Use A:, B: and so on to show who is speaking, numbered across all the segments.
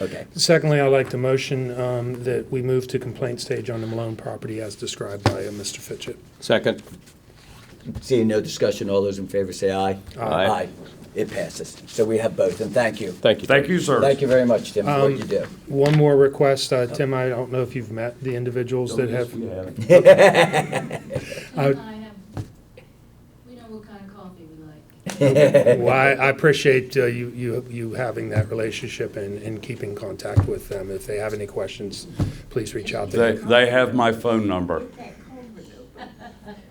A: Okay.
B: Secondly, I'd like to motion um, that we move to complaint stage on the Malone property as described by uh, Mr. Fitchett.
C: Second.
A: Seeing no discussion, all those in favor say aye.
C: Aye.
A: It passes. So we have both, and thank you.
C: Thank you.
D: Thank
C: Tony.
D: you, sir.
A: Thank you very much, Tim, for what you do.
B: One more request, uh, Tim, I don't know if you've met the individuals that have, I
E: I
B: would-
E: have, we know what kind of coffee we like.
B: well, I I appreciate uh, you, you, you having that relationship and, and keeping contact with them. If they have any questions, please reach out to
D: They,
B: them.
D: they have my phone number.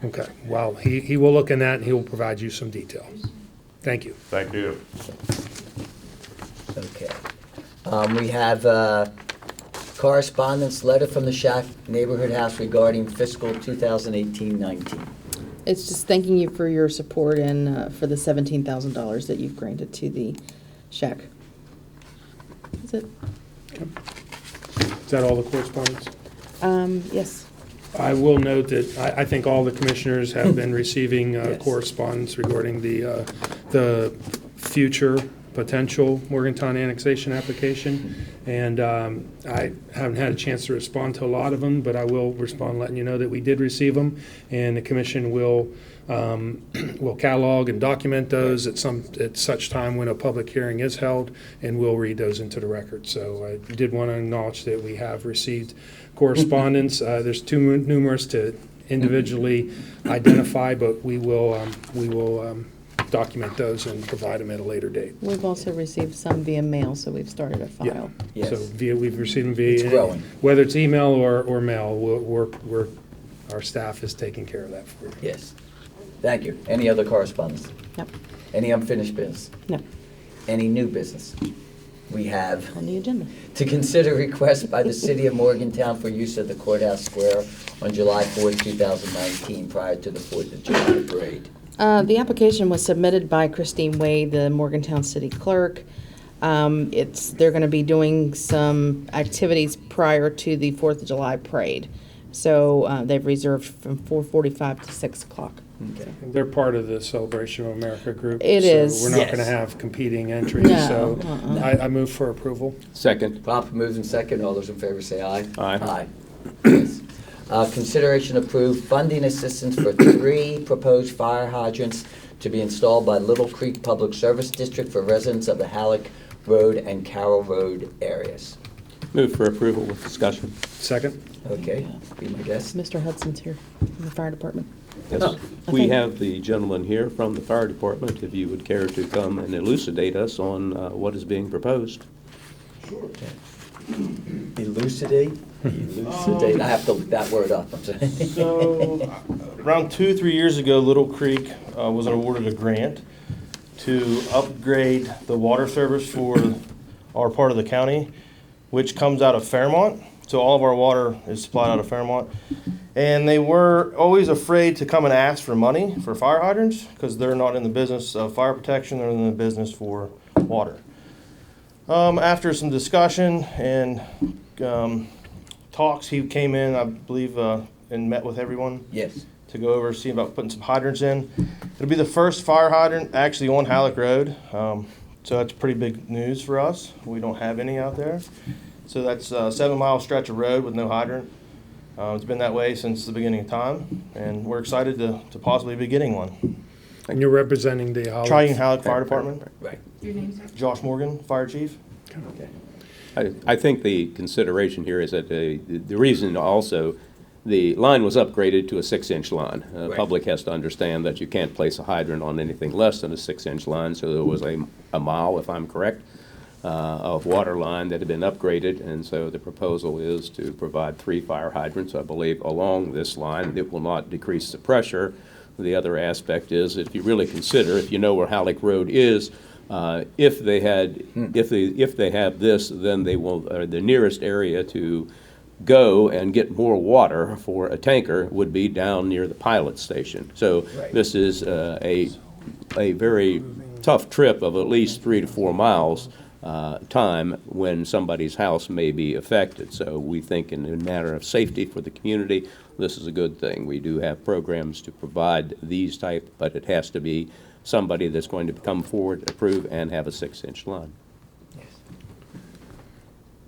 B: Okay, well, he, he will look in that and he will provide you some details. Thank you.
D: Thank you.
A: Okay. Um, we have uh correspondence letter from the Shack Neighborhood House regarding fiscal 2018-19.
F: It's just thanking you for your support and uh, for the $17,000 that you've granted to the shack. Is it?
B: Is that all the correspondence?
F: Um, Yes.
B: I will note that I, I think all the commissioners have been receiving uh,
F: Yes.
B: correspondence regarding the, uh, the future potential Morgantown annexation application. And um, I haven't had a chance to respond to a lot of them, but I will respond letting you know that we did receive them. And the commission will, um, will catalog and document those at some, at such time when a public hearing is held, and we'll read those into the record. So I did want to acknowledge that we have received correspondence. Uh, There's too mu- numerous to individually identify, but we will, um, we will um, document those and provide them at a later date.
F: We've also received some via mail, so we've started a file.
A: Yes.
B: So via, we've received them via.
A: It's growing.
B: Whether it's email or, or mail, we're- we're, we're, our staff is taking care of that for you.
A: Yes. Thank you. Any other correspondence?
F: Yep,
A: Any unfinished business?
F: no,
A: Any new business? We have
F: on the agenda.
A: to consider request by the city of Morgantown for use of the courthouse square on July 4th, 2019, prior to the 4th of July parade.
F: Uh, The application was submitted by Christine Wade, the Morgantown City Clerk. Um, It's, they're going to be doing some activities prior to the Fourth of July parade. So uh, they've reserved from 4:45 to 6 o'clock.
A: Okay.
B: They're part of the Celebration of America group.
F: It
B: so
F: is.
B: We're not
A: Yes.
B: going to have competing entries,
F: No,
B: so
F: uh-uh.
B: I, I move for approval.
C: Second.
A: Pop moves in second. All those in favor say aye.
C: Aye.
A: Yes. Uh, Consideration approved funding assistance for three proposed fire hydrants to be installed by Little Creek Public Service District for residents of the Halleck Road and Carroll Road areas.
C: Move for approval with discussion.
B: Second?
A: Okay, be my guest.
F: Mr. Hudson's here from the fire department.
C: Yes.
A: Oh,
C: We
F: okay.
C: have the gentleman here from the fire department, if you would care to come and elucidate us on uh, what is being proposed.
A: Elucidate, elucidate, I have to look that word up, I'm sorry.
G: So, around two, three years ago, Little Creek uh, was awarded a grant to upgrade the water service for our part of the county, which comes out of Fairmont. So all of our water is supplied out of Fairmont. And they were always afraid to come and ask for money for fire hydrants because they're not in the business of fire protection, they're in the business for water. Um, after some discussion and um, talks, he came in, I believe, uh, and met with everyone
A: Yes,
G: to go over see about putting some hydrants in. It'll be the first fire hydrant actually on Halleck Road, um, so that's pretty big news for us. We don't have any out there, so that's a seven-mile stretch of road with no hydrant. Uh, it's been that way since the beginning of time, and we're excited to, to possibly be getting one.
B: And you're representing the Hollis.
G: Trying Halleck Fire Department,
A: right,
E: Your name's on
G: Josh Morgan, Fire Chief.
A: okay.
C: I I think the consideration here is that the the reason also, the line was upgraded to a six-inch line. Uh,
A: Right.
C: Public has to understand that you can't place a hydrant on anything less than a six-inch line, so there was a a mile, if I'm correct, uh, of water line that had been upgraded, and so the proposal is to provide three fire hydrants, I believe, along this line. It will not decrease the pressure. The other aspect is, if you really consider, if you know where Halleck Road is, uh, if they had, if they, if they have this, then they will, uh, the nearest area to go and get more water for a tanker would be down near the pilot station. So
A: Right.
C: this is uh, a, a very tough trip of at least three to four miles uh, time when somebody's house may be affected. So we think in a matter of safety for the community, this is a good thing. We do have programs to provide these type, but it has to be somebody that's going to come forward, approve, and have a six-inch line.